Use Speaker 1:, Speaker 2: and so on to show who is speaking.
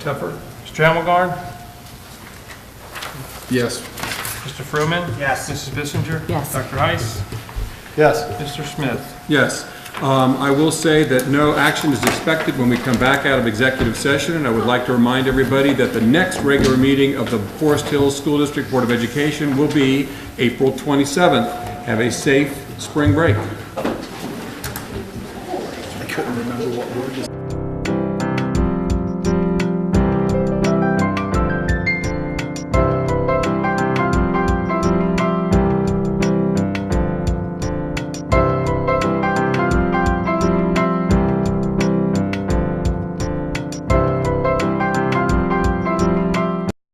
Speaker 1: Except for Mr. Hamelgarn,
Speaker 2: Yes.
Speaker 1: Mr. Fruman? Yes. Mrs. Bissinger?
Speaker 3: Yes.
Speaker 1: Dr. Heiss?
Speaker 4: Yes.
Speaker 1: Mr. Smith?
Speaker 2: Yes. Um, I will say that no action is expected when we come back out of executive session, and I would like to remind everybody that the next regular meeting of the Forest Hills School District Board of Education will be April 27th. Have a safe spring break.
Speaker 4: I couldn't remember what word to